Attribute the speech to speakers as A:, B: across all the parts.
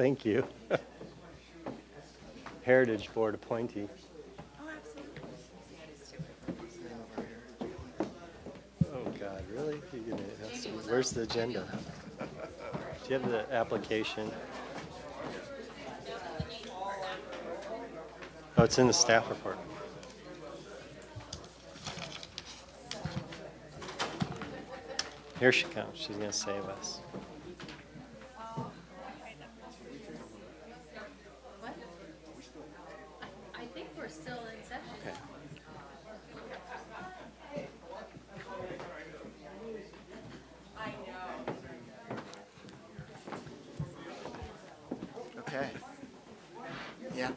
A: Thank you. Heritage Board appointee.
B: Oh, absolutely.
A: Oh, God, really? You're gonna ask me- Where's the agenda? Do you have the application? Oh, it's in the staff report. Here she comes. She's gonna save us.
B: What? I think we're still in session.
A: Okay.
C: Okay. Yeah.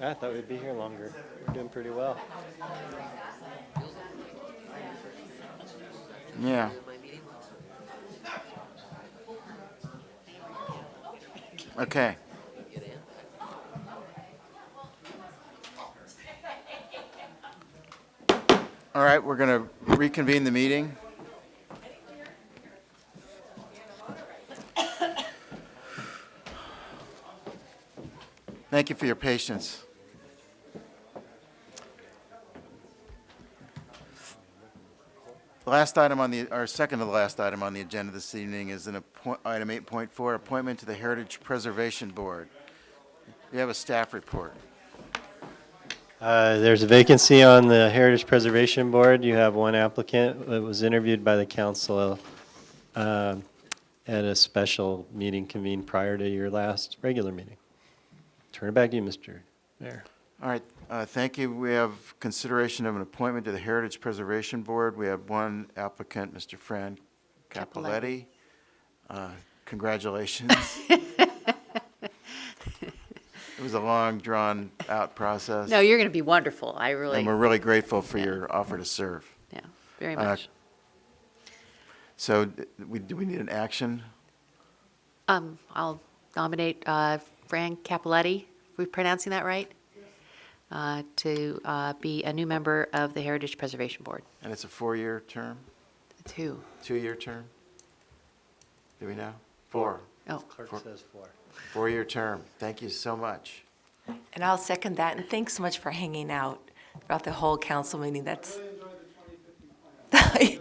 A: I thought we'd be here longer. We're doing pretty well.
C: Yeah. Okay. All right, we're going to reconvene the meeting. Thank you for your patience. The last item on the, our second to the last item on the agenda this evening is an appoint, item 8.4, appointment to the Heritage Preservation Board. We have a staff report.
A: Uh, There's a vacancy on the Heritage Preservation Board. You have one applicant that was interviewed by the council um, at a special meeting convened prior to your last regular meeting. Turn it back to you, Mr. Mayor.
C: All right, uh, thank you. We have consideration of an appointment to the Heritage Preservation Board. We have one applicant, Mr. Fran Capoletti. Uh, Congratulations. It was a long, drawn-out process.
D: No, you're going to be wonderful. I really,
C: And we're really grateful for your offer to serve.
D: yeah, very
C: Uh,
D: much.
C: So d- we, do we need an action?
D: Um, I'll nominate uh, Fran Capoletti, are we pronouncing that right? Uh, To uh, be a new member of the Heritage Preservation Board.
C: And it's a four-year term,
D: Two.
C: two-year term? Do we know? Four,
D: Oh,
A: Clerk says four.
C: four-year term. Thank you so much.
E: And I'll second that, and thanks so much for hanging out throughout the whole council meeting, that's. Dan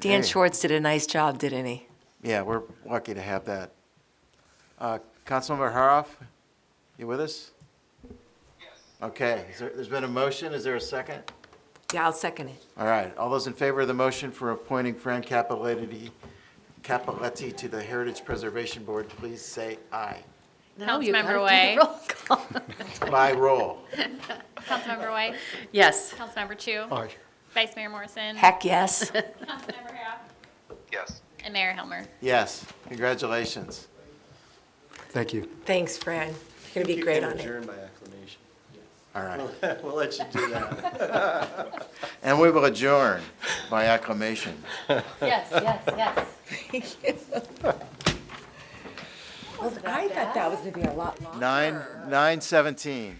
C: Hey.
E: Schwartz did a nice job, didn't he?
C: Yeah, we're lucky to have that. Uh, Councilmember Haroff, you with us? Yes. Okay, is there- there's been a motion, is there a second?
E: Yeah, I'll second it.
C: All right, all those in favor of the motion for appointing Fran Capoletti, Capoletti to the Heritage Preservation Board, please say aye.
D: No, you gotta
B: Councilmember
D: do
B: Way.
D: the roll call.
C: By roll.
B: Councilmember White,
D: Yes,
B: Councilmember Chu,
C: Aye.
B: Vice Mayor Morrison,
E: Heck, yes.
B: Councilmember Harrop,
F: Yes.
B: and Mayor Helmer.
C: Yes, congratulations.
G: Thank you.
E: Thanks, Fran. You're gonna be great on it.
A: Adjourn by acclamation.
C: All right.
A: We'll let you do that.
C: And we will adjourn by acclamation.
D: yes, yes, yes.
E: I thought that was gonna be a lot longer.
C: Nine, 9:17.